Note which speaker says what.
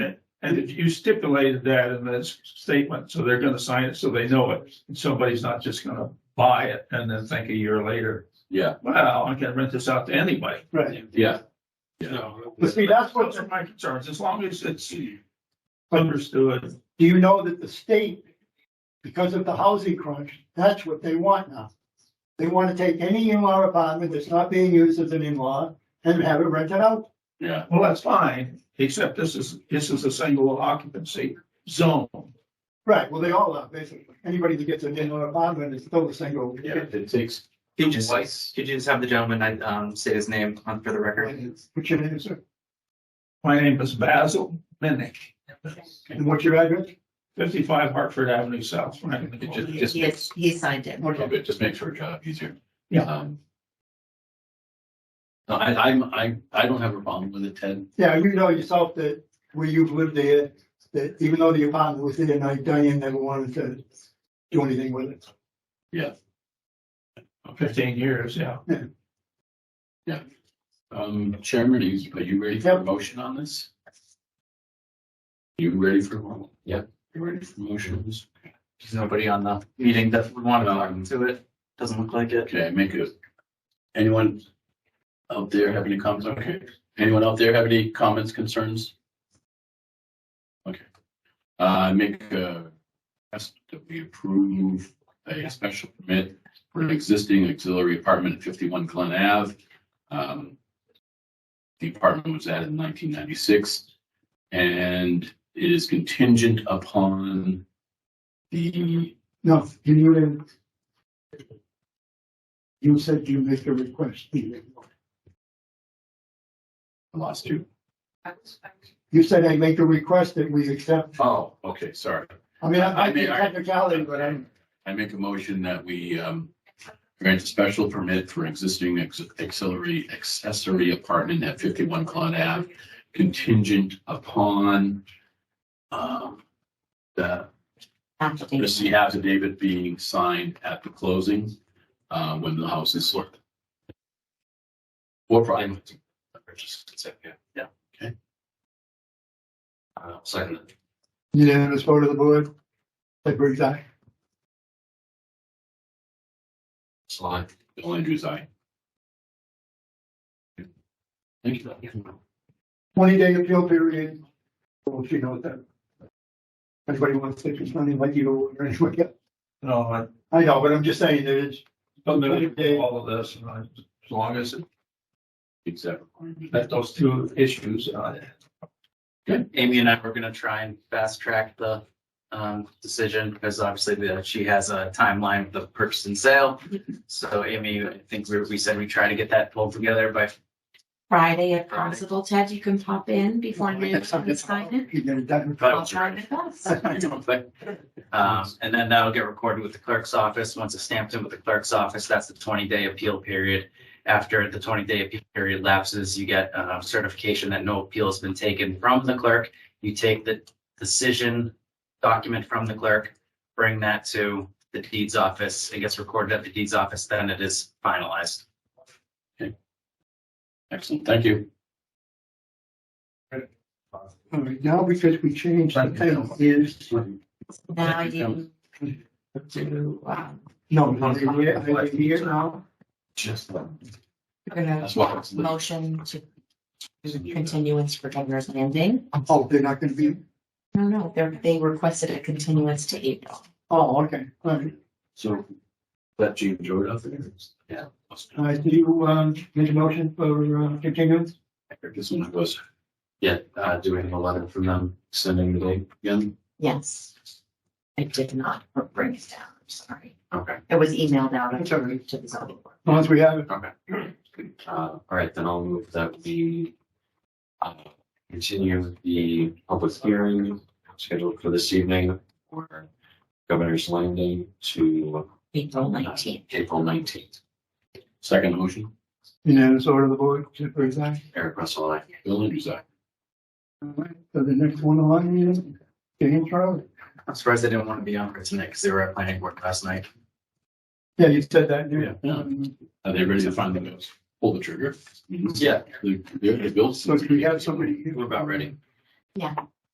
Speaker 1: And if you stipulated that in this statement, so they're gonna sign it, so they know it, and somebody's not just gonna buy it and then think a year later,
Speaker 2: Yeah,
Speaker 1: well, I can rent this out to anybody.
Speaker 3: Right.
Speaker 2: yeah,
Speaker 1: So,
Speaker 3: But see, that's what,
Speaker 1: Those are my concerns, as long as it's understood.
Speaker 3: do you know that the state, because of the housing crunch, that's what they want now. They want to take any in-law apartment that's not being used as an in-law and have it rented out.
Speaker 2: yeah,
Speaker 1: Well, that's fine, except this is, this is a single occupancy zone.
Speaker 3: Right, well, they all are, basically. Anybody that gets an in-law apartment is still a single.
Speaker 1: Yeah.
Speaker 2: it takes,
Speaker 4: Could you just,
Speaker 2: Twice.
Speaker 4: could you just have the gentleman, I, um, say his name on for the record?
Speaker 3: What's your name, sir?
Speaker 1: My name is Basil Minnick,
Speaker 3: And what's your address?
Speaker 1: fifty-five Hartford Avenue South, right? in the
Speaker 2: it just,
Speaker 1: corner.
Speaker 2: just
Speaker 5: He
Speaker 2: makes,
Speaker 5: has, he signed it.
Speaker 3: Okay.
Speaker 2: it just makes our job easier.
Speaker 1: Yeah.
Speaker 2: Um, no, I, I'm, I, I don't have a problem with the ten,
Speaker 3: Yeah, you know yourself that where you've lived there, that even though the apartment was there, now Diane never wanted to do anything with it.
Speaker 1: Fifteen years, yeah.
Speaker 2: um, Chairman, are you- are you ready for a
Speaker 3: Yep.
Speaker 2: motion on this? You ready for one? Yeah. You ready for motions?
Speaker 4: There's nobody on the meeting that would want to talk
Speaker 2: Um,
Speaker 4: to it. Doesn't look like it.
Speaker 2: Okay, make it. Anyone out there have any comments? Okay, anyone out there have any comments, concerns? Okay, uh, make a, ask that we approve a special permit for an existing auxiliary apartment at fifty-one Glen Ave. Um, The apartment was added in nineteen ninety-six and it is contingent upon the,
Speaker 3: No, can you then? You said you make a request. You
Speaker 2: I lost you.
Speaker 3: said I make a request that we accept.
Speaker 2: Oh, okay, sorry.
Speaker 3: I mean,
Speaker 2: I
Speaker 3: I I
Speaker 2: mean,
Speaker 3: think
Speaker 2: I-
Speaker 3: technicality, but I'm,
Speaker 2: I make a motion that we um grant a special permit for existing ex- auxiliary accessory apartment at fifty-one Claude Ave contingent upon um the the C affidavit being signed at the closing uh when the house is sold. Or probably.
Speaker 4: Yeah.
Speaker 2: Okay.
Speaker 4: Uh, second.
Speaker 3: unanimous vote of the board. That brings I.
Speaker 4: Slide.
Speaker 2: Bill Andrews, aye. Thank you.
Speaker 3: Twenty day appeal period. Well, you know that. Anybody wants to, it's not like you or anyone.
Speaker 1: No, I
Speaker 3: I know, but I'm just saying that it's
Speaker 1: familiar with all of this, and I, as long as it-
Speaker 2: Exactly.
Speaker 1: that those two issues, uh,
Speaker 4: Amy and I were gonna try and fast track the, um, decision because obviously the, she has a timeline of the purchase and sale. So Amy, I think we, we said we try to get that pulled together by,
Speaker 5: Friday if
Speaker 4: Friday.
Speaker 5: possible, Ted, you can pop in before noon and sign it.
Speaker 3: You get it done.
Speaker 5: I'll try my best.
Speaker 4: um, and then that'll get recorded with the clerk's office. Once it's stamped in with the clerk's office, that's the twenty day appeal period. After the twenty day appeal period lapses, you get, uh, certification that no appeal has been taken from the clerk. You take the decision document from the clerk, bring that to the deeds office. It gets recorded at the deeds office, then it is finalized.
Speaker 2: Excellent, thank you.
Speaker 3: All right, now because we changed the title is,
Speaker 5: Now I didn't do, um,
Speaker 3: no, I did here, I did here.
Speaker 5: no,
Speaker 2: Just them.
Speaker 5: we're gonna
Speaker 2: That's why it's-
Speaker 5: motion to continuance for Governor's Landing.
Speaker 3: Oh, they're not gonna be,
Speaker 5: No, no, they're, they requested a continuance to April.
Speaker 3: oh, okay, all right.
Speaker 2: So that Gene drew it up there. Yeah.
Speaker 3: All right, did you, um, make a motion for, uh, continuance?
Speaker 2: This one was
Speaker 4: Yeah, uh, doing a letter from them, sending the date.
Speaker 2: again.
Speaker 5: Yes. I did not bring it down, I'm sorry.
Speaker 4: Okay.
Speaker 5: It was emailed out
Speaker 3: That's all right.
Speaker 5: to the zoning board.
Speaker 3: Once we have it,
Speaker 6: Uh, all right, then I'll move that we uh, continue the public hearing scheduled for this evening for Governor's Landing to
Speaker 5: April nineteenth.
Speaker 6: April nineteenth.
Speaker 2: Second motion,
Speaker 3: unanimous order of the board to present.
Speaker 6: Eric Russell, I.
Speaker 2: Bill Andrews, aye.
Speaker 3: All right, So the next one on here, James Charlie.
Speaker 4: I'm surprised they didn't want to be on for tonight because they were at planning board last night.
Speaker 3: Yeah, you said that,
Speaker 2: Yeah.
Speaker 3: yeah.
Speaker 2: Are they ready to finally go? pull the trigger?
Speaker 4: Yeah.
Speaker 2: They're, they're, Bill.
Speaker 3: So if we have somebody-
Speaker 2: We're about ready.
Speaker 5: Yeah.